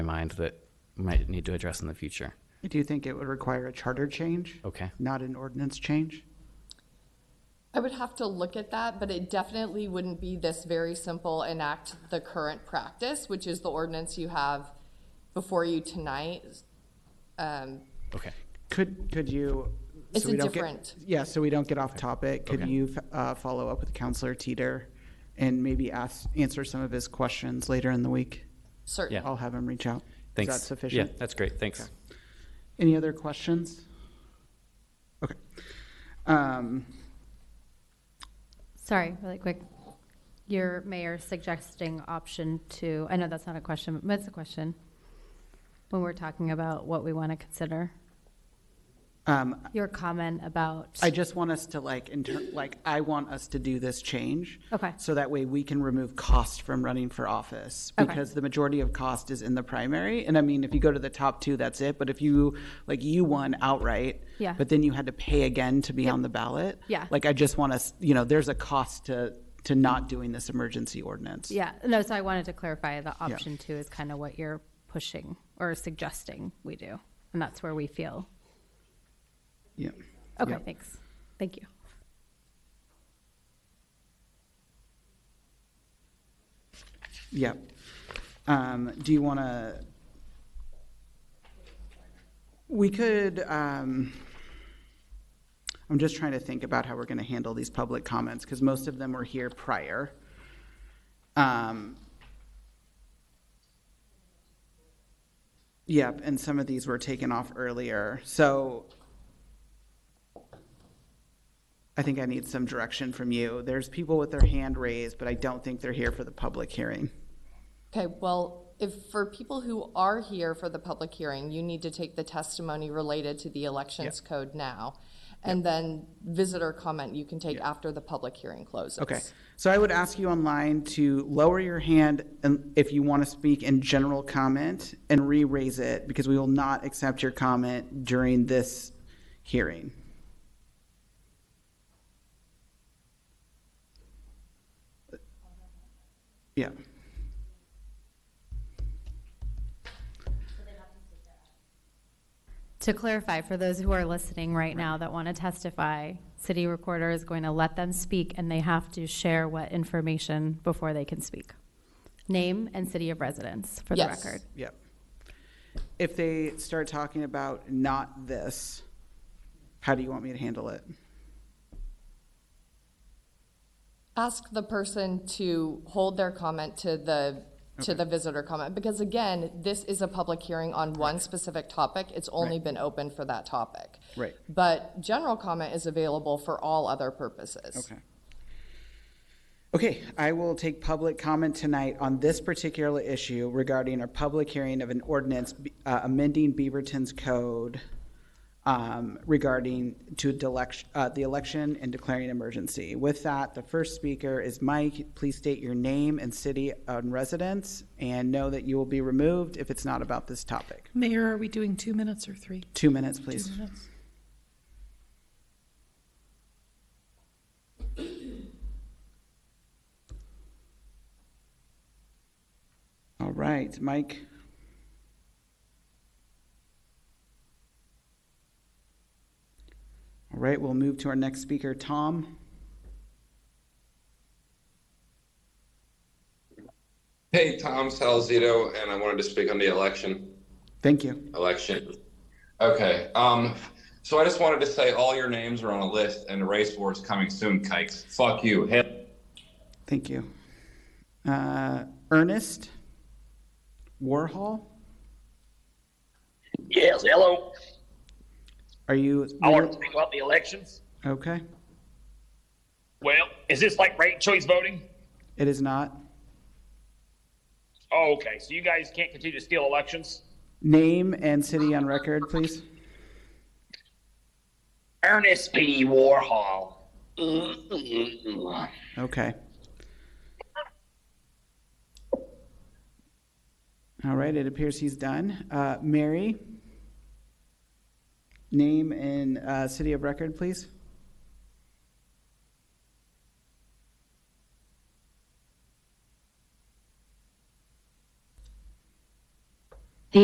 mind that we might need to address in the future. Do you think it would require a charter change? Okay. Not an ordinance change? I would have to look at that, but it definitely wouldn't be this very simple enact the current practice, which is the ordinance you have before you tonight. Um, Okay. Could, could you? so It's a we don't get- different- Yeah, so we don't get off topic, could Okay. you uh, follow up with Counselor Teeter and maybe ask, answer some of his questions later in the week? Certainly. I'll have him reach out. Thanks. Is that sufficient? Yeah, that's great. Thanks. Any other questions? Okay. Um, Sorry, really quick. Your mayor suggesting option two, I know that's not a question, but it's a question when we're talking about what we want to consider. um, Your comment about, I just want us to like, inter- like, I want us to do this change. Okay. So that way we can remove cost from running for office. Okay. Because the majority of cost is in the primary. And I mean, if you go to the top two, that's it. But if you, like, you won outright. Yeah. But then you had to pay again to be on the ballot. Yeah. Like, I just want us, you know, there's a cost to, to not doing this emergency ordinance. yeah, no, so I wanted to clarify the option two is kind of what you're pushing or suggesting we do. And that's where we feel. Yeah. Okay, Yeah. thanks. Thank you. Yep. Um, do you want to? We could, um, I'm just trying to think about how we're going to handle these public comments because most of them were here prior. Um, yep, and some of these were taken off earlier. So I think I need some direction from you. There's people with their hand raised, but I don't think they're here for the public hearing. Okay, well, if, for people who are here for the public hearing, you need to take the testimony related to the elections code now. And then visitor comment you can take after the public hearing closes. Okay, so I would ask you online to lower your hand and- if you want to speak in general comment and re-raise it because we will not accept your comment during this hearing. Yeah. To clarify, for those who are listening right now that want to testify, city recorder is going to let them speak and they have to share what information before they can speak. Name and city of residence for the Yes. record. Yep. If they start talking about not this, how do you want me to handle it? ask the person to hold their comment to the, to the visitor comment, because again, this is a public hearing on one specific topic, it's only been open for that topic. Right. But general comment is available for all other purposes. Okay. Okay, I will take public comment tonight on this particular issue regarding a public hearing of an ordinance uh, amending Beaverton's code um, regarding to delec- uh, the election and declaring emergency. With that, the first speaker is Mike. Please state your name and city and residence, and know that you will be removed if it's not about this topic. Mayor, are we doing two minutes or three? Two minutes, Two please. minutes. All right, Mike. All right, we'll move to our next speaker, Tom. Hey, Tom Salzito, and I wanted to speak on the election. Thank you. Election. Okay. Um, so I just wanted to say all your names are on a list, and the race war is coming soon, kikes. Fuck you. Hey. Thank you. Uh, Ernest Warhol, Yes, hello. are you? I want to speak about the elections. Okay, Well, is this like ranked choice voting? it is not. Oh, okay. So you guys can't continue to steal elections? Name and city on record, please. Ernest P. Warhol. Mm-mm-mm. Okay. All right, it appears he's done. Uh, Mary, name and uh, city of record, please.